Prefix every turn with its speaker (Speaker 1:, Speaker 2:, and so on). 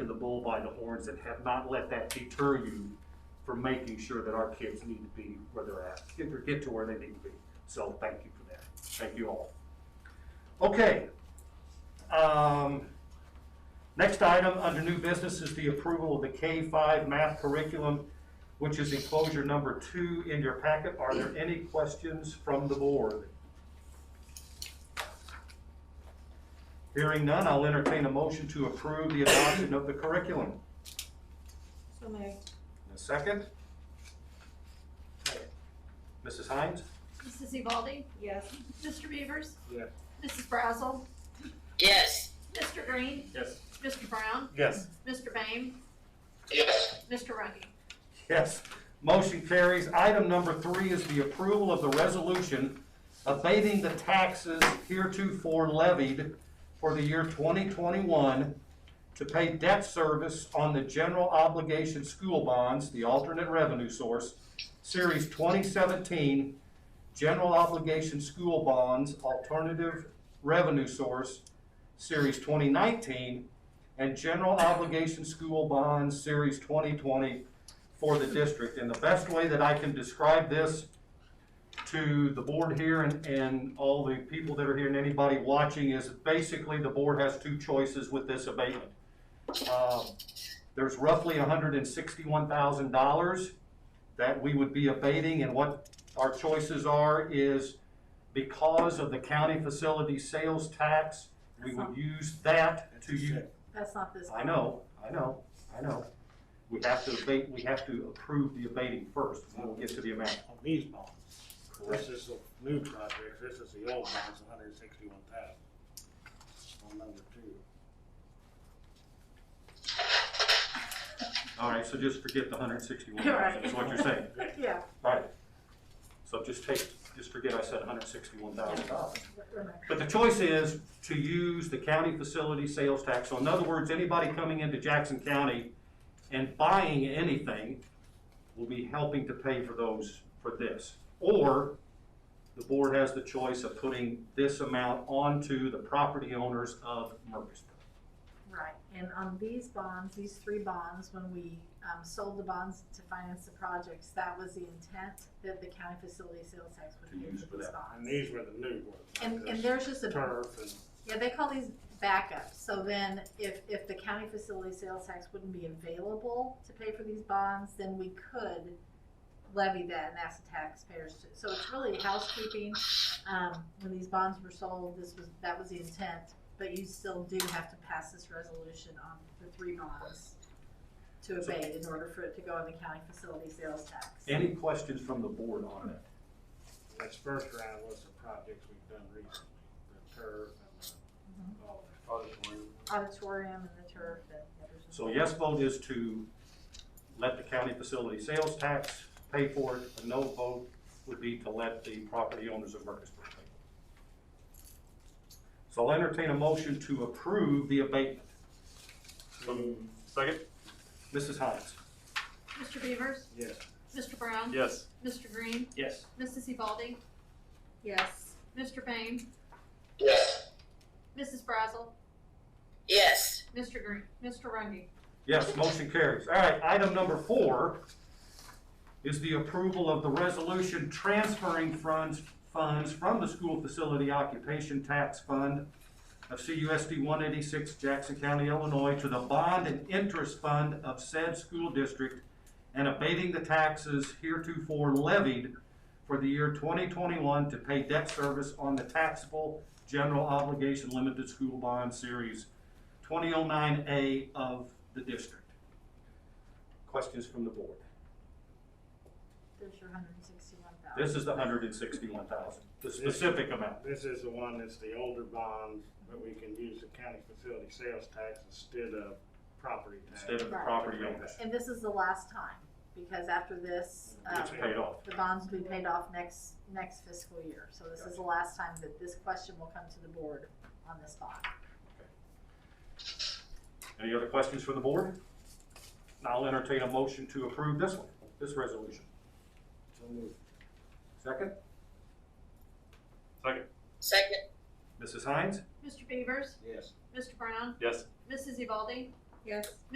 Speaker 1: bull by the horns and have not let that deter you from making sure that our kids need to be where they're at, get their, get to where they need to be. So thank you for that. Thank you all. Okay. Um, Next item under new business is the approval of the K five math curriculum, which is enclosure number two in your packet. Are there any questions from the board? Hearing none, I'll entertain a motion to approve the adoption of the curriculum.
Speaker 2: So moved.
Speaker 1: A second? Mrs. Hines?
Speaker 3: Mrs. Evaldi?
Speaker 2: Yes.
Speaker 3: Mr. Beavers?
Speaker 1: Yes.
Speaker 3: Mrs. Brazel?
Speaker 4: yes,
Speaker 3: Mr. Green?
Speaker 1: Yes.
Speaker 3: Mr. Brown?
Speaker 1: Yes.
Speaker 3: Mr. Bame?
Speaker 4: yes,
Speaker 3: Mr. Rungy?
Speaker 1: Yes, motion carries. Item number three is the approval of the resolution abating the taxes heretofore levied for the year 2021 to pay debt service on the general obligation school bonds, the alternate revenue source, Series 2017, general obligation school bonds, alternative revenue source, Series 2019, and general obligation school bonds, Series 2020, for the district. And the best way that I can describe this to the board here and, and all the people that are here and anybody watching is basically the board has two choices with this abatement. Um, There's roughly hundred and sixty-one thousand dollars that we would be abating and what our choices are is because of the county facility sales tax, we would use that to use.
Speaker 2: That's not this.
Speaker 1: I know, I know, I know. We have to abate, we have to approve the abating first, and we'll get to the amount.
Speaker 5: on these bonds. This is the new project, this is the old bonds, hundred and sixty-one thousand. On number two.
Speaker 1: All right, so just forget the hundred and sixty-one
Speaker 2: Right.
Speaker 1: thousand, is what you're saying.
Speaker 2: Yeah.
Speaker 1: Right. So just take, just forget I said hundred and sixty-one thousand dollars. But the choice is to use the county facility sales tax. So in other words, anybody coming into Jackson County and buying anything will be helping to pay for those, for this. Or the board has the choice of putting this amount onto the property owners of Murfreesboro.
Speaker 2: Right, and on these bonds, these three bonds, when we, um, sold the bonds to finance the projects, that was the intent that the county facility sales tax
Speaker 1: To
Speaker 2: would be
Speaker 1: use
Speaker 2: for
Speaker 1: for
Speaker 2: these
Speaker 1: that.
Speaker 5: And
Speaker 2: bonds.
Speaker 5: these were the new ones. not
Speaker 2: And, and
Speaker 5: this
Speaker 2: there's just a
Speaker 5: Turf and,
Speaker 2: Yeah, they call these backups, so then if, if the county facility sales tax wouldn't be available to pay for these bonds, then we could levy that and ask the taxpayers to, so it's really housekeeping. Um, when these bonds were sold, this was, that was the intent, but you still do have to pass this resolution on the three bonds to
Speaker 1: So-
Speaker 2: abate in order for it to go on the county facility sales tax.
Speaker 1: Any questions from the board on that?
Speaker 5: this first round was the projects we've done recently, the turf and
Speaker 2: Mm-hmm.
Speaker 5: the, all that.
Speaker 2: Auditorium and the turf and everything.
Speaker 1: So yes vote is to let the county facility sales tax pay for it. A no vote would be to let the property owners of Murfreesboro pay. for it. So I'll entertain a motion to approve the abatement.
Speaker 5: Mm,
Speaker 1: Second. Mrs. Hines?
Speaker 3: Mr. Beavers?
Speaker 5: Yes,
Speaker 3: Mr. Brown?
Speaker 1: Yes.
Speaker 3: Mr. Green?
Speaker 1: Yes.
Speaker 3: Mrs. Evaldi?
Speaker 2: Yes,
Speaker 3: Mr. Bame?
Speaker 4: yes,
Speaker 3: Mrs. Brazel?
Speaker 4: yes,
Speaker 3: Mr. Green? Mr. Rungy?
Speaker 1: Yes, motion carries. All right, item number four is the approval of the resolution transferring funds, funds from the school facility occupation tax fund of CUSD one eighty-six Jackson County, Illinois, to the bond and interest fund of said school district and abating the taxes heretofore levied for the year twenty twenty-one to pay debt service on the taxable general obligation limited school bond series 2009A of the district. Questions from the board?
Speaker 2: there's your hundred and sixty-one thousand.
Speaker 1: This is the 161,000, the specific amount.
Speaker 5: this is the one that's the older bonds, but we can use the county facility sales tax instead of property tax.
Speaker 1: Instead of the property owners.
Speaker 2: And this is the last time, because after this, um,
Speaker 1: It's paid off.
Speaker 2: the bonds will be paid off next, next fiscal year. So this is the last time that this question will come to the board on this bond.
Speaker 1: Any other questions from the board? Now I'll entertain a motion to approve this one, this resolution.
Speaker 5: So moved.
Speaker 1: Second? Second.
Speaker 4: second,
Speaker 1: Mrs. Hines?
Speaker 3: Mr. Beavers?
Speaker 5: Yes.
Speaker 3: Mr. Brown?
Speaker 1: Yes.
Speaker 3: Mrs. Evaldi?
Speaker 2: Yes.